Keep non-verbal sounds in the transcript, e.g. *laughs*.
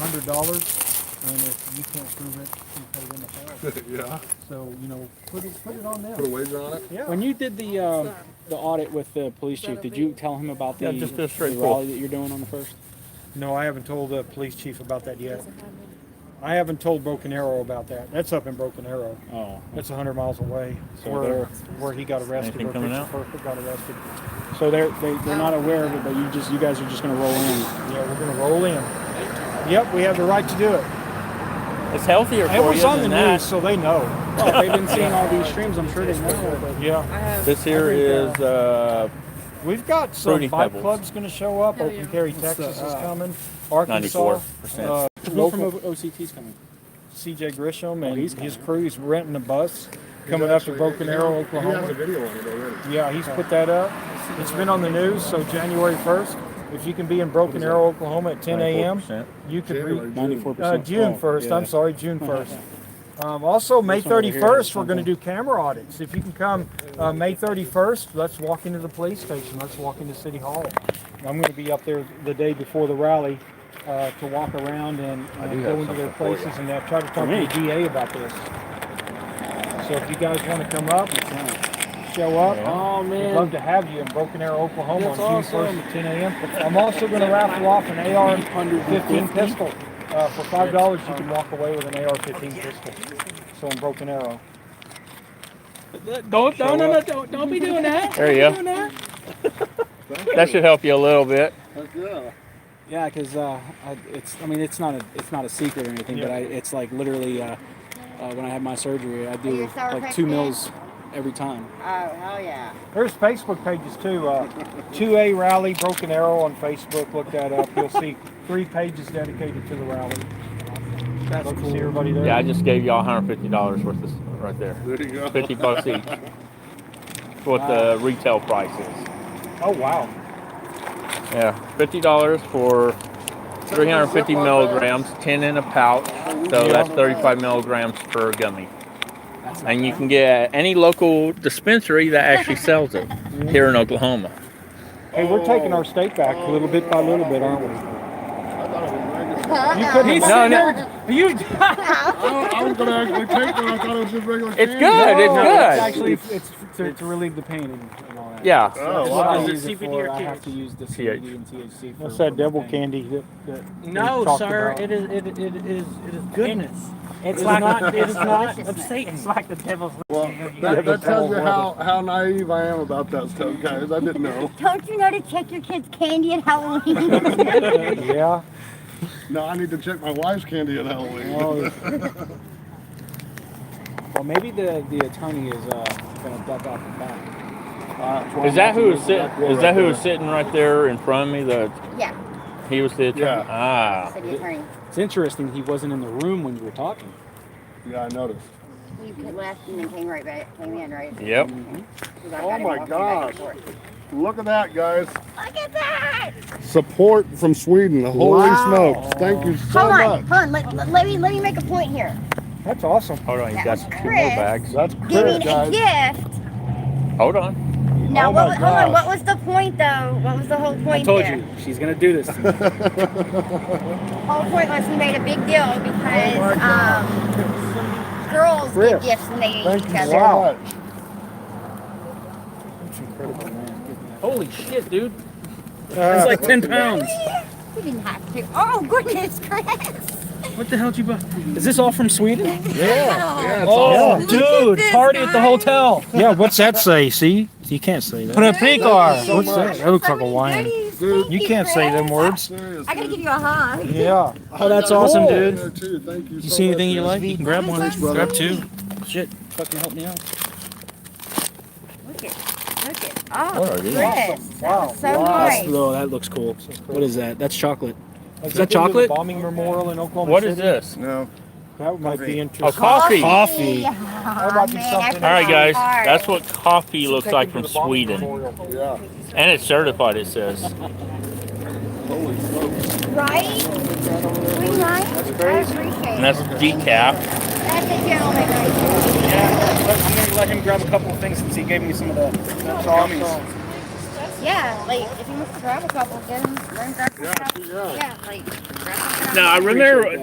hundred dollars, and if you can't prove it, you pay them a thousand. Yeah, So, you know, put it, put it on put a them. wager on it. Yeah, When you did the, uh, the audit with the police chief, did you tell him about the Yeah, just a the straight rally that you're doing on the first? no, I haven't told the police chief about that yet. I haven't told Broken Arrow about that. That's up in Broken Arrow. Oh, That's a hundred miles away, So where, they're- where he got arrested, Anything where coming Picture out? Perfect got arrested. so they're, they, they're not aware of it, but you just, you guys are just gonna roll in. Yeah, we're gonna roll in. Yep, we have the right to do it. It's healthier for It was you on the than that. news, so they know. Well, they've been seeing all these streams, I'm sure they know, Yeah, This here is uh, we've got some Fruity bike Pebbles. clubs gonna show up. Hell Open yeah. Carry, Texas is coming. Arkansas, 94%. uh, but. Who from local OCT's coming? CJ Grisham and he's his crew's renting a bus coming up to Actually, Broken he- Arrow, He has a Oklahoma. video on it already. Yeah, he's put that up. It's been on the news, so January first, if you can be in Broken Arrow, Oklahoma at ten AM, 94%. you could January, read, June. Ninety-four uh, percent. June first, I'm sorry, June *laughs* first. Um, also, May This one over here thirty-first, is we're gonna something. do camera audits. If you can come, uh, May thirty-first, let's walk into the police station, let's walk into City Hall. I'm gonna be up there the day before the rally, uh, to walk around and I and do go have into their something for you. places and uh, try to talk to the me? DA about this. So if you guys wanna come up, show up, Oh, we'd love man. to have you in Broken Arrow, Oklahoma on That's June first awesome. at ten AM. I'm also gonna raffle off an AR 15 150. pistol. Uh, for five dollars, you can walk away with an AR-15 pistol. So in Broken Arrow. Don't, no, no, no, don't, don't be doing that. There you go. That should help you a little bit. Yeah, because uh, I- it's. I mean, it's not a. It's not a secret or anything, but Yeah. I, it's like literally uh, uh, when I had my surgery, I do your sour like two cracked meals every time. Oh, hell yeah. There's Facebook pages too. Uh, 2A Rally Broken Arrow on Facebook. Look that up. You'll see three pages dedicated to the rally. That's Love to see everybody there. Yeah, I just gave y'all $150 worth of right *laughs* there. There you go. 50 bucks each. What the retail price is. oh wow. Yeah, $50 for 350 milligrams, 10 in a pouch. So that's 35 milligrams per gummy. That's not And you can get any local dispensary that actually sells it here in Oklahoma. Hey, we're taking our state back little bit by little bit, aren't we? I thought it was regular. You couldn't. He's sitting there You. I was gonna actually take one. I thought it was just regular. It's candy. good. It's It's good. actually, it's, it's to, to relieve the pain and, and all that. Yeah. Oh, That's wow. what I Is it use it CBD for. or I have THC? to use the CBD and THC. For, What's for that my devil pain. candy that, that we No, talked sir. *laughs* about? It is, it, it is it is goodness. It's It's like not it is not Deliciousness. of Satan. It's like the devil's. Well, that, that tells you how, how naive I am about that stuff, guys. I didn't know. Don't you know to check your kids' candy at Halloween? Yeah. No, I need to check my wife's candy at *laughs* Halloween. Well, well, maybe the the attorney is uh, gonna duck out the back. Is that who is sitting? Is that who is sitting right there in front of me? The *laughs* *laughs* yeah, he was the attorney. Yeah. Ah, city attorney. It's interesting. He wasn't in the room when you were talking. Yeah, I noticed. You could left and then came right back, came in, right? yep. 'Cause I Oh got him my walking back and gosh. forth. Look at that, guys. Look at that! Support from Sweden. Holy smokes. Thank you so hold on, much. hold on. Let, let, let me let me make a point here. that's awesome. Hold on, you That got was two more Chris. bags. That's Giving good, a guys. gift. Hold on. Now, Oh what, my was- hold gosh. on. What was the point though? What was the whole point I told there? you she's gonna do *laughs* this. to me. Whole point was we made a big deal because um, girls Chris, get gifts and they eat Thank each you other. so much. Holy shit, dude! That's like ten pounds. *laughs* You didn't have to. Oh goodness, Chris! What the hell did you buy? Is this all from Sweden? Yeah, it's Oh, awesome. Look at dude, this, party at the guys. hotel. Yeah, what's that say? See, you can't say *laughs* that. Precar. What's that? That looks like a wine. Dude. You can't say them words. Serious, I gotta dude. give you a hug. Yeah. I Oh, that's got a awesome, hole dude. there, too. Thank you You so see much, anything you guys. like? You can grab one of these. Brother. Grab two. Shit, fucking help me out. Look at, look at. Oh, What are these? Chris, that was so nice. Oh, that looks cool. What is that? That's chocolate. Is that chocolate? bombing memorial in Oklahoma What City. is this? No. That might be interesting. Oh, coffee. All Coffee. Oh, about you man, something? that's right, guys. hard. That's what coffee looks Take like it from to the bombing Sweden, memorial. Yeah. and it's certified. It says. Holy smokes. Right? We right? I appreciate And that's it. decaf. That's a gentleman right there. Yeah, let, I'm gonna let him grab a couple of things since he gave me some of the gummies. That's Yeah, like if he wants to grab a couple, get him, let him grab some stuff. Yeah, like grab some stuff. Now I remember